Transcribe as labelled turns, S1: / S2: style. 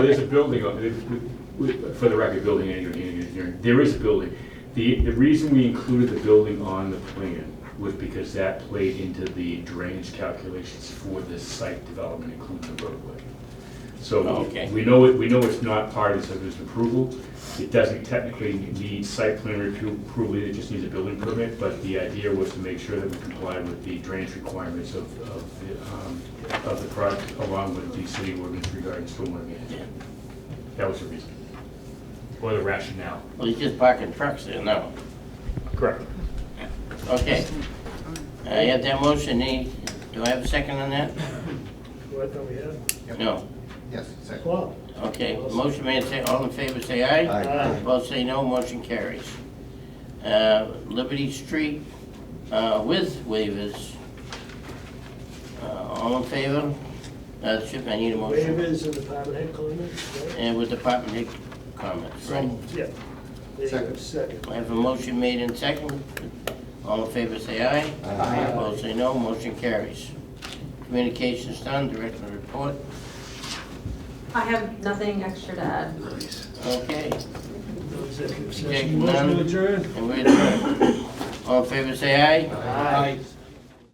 S1: There's a building, on- we- we- for the record, building engineering, engineering, there is a building. The, the reason we included the building on the plan was because that played into the drainage calculations for this site development, including the roadway. So
S2: Okay.
S1: we know, it. we know it's not part of the subdivision approval. It doesn't technically need site plan review approval, it just needs a building permit. But the idea was to make sure that we complied with the drainage requirements of, of the, um, of the project along with the city ordinance regarding stormwater management. That was the reason, or the rationale.
S2: Well, he's just parking trucks there now.
S1: Correct.
S2: Okay. I have that motion, Any- do I have a second on that?
S3: What do we have?
S2: No.
S4: Yes, second.
S3: Well,
S2: Okay, motion made, say, all in favor, say aye.
S4: Aye.
S2: Opposed, say no, motion carries. Uh, Liberty Street uh, with waivers. Uh, All in favor? Uh, should- I need a motion.
S3: waivers and department head comments, right?
S2: And with department head comments, right?
S3: Yeah. There you go,
S4: Second.
S3: Second.
S2: I have a motion made and second. All in favor, say aye.
S4: Aye.
S2: Opposed, say no. Motion carries. Communications done, director report.
S5: I have nothing extra to add.
S2: Okay,
S3: No executive
S2: Okay,
S3: session.
S2: none.
S3: Motion to adjourn?
S2: and we're done. All in favor, say aye.
S3: Aye.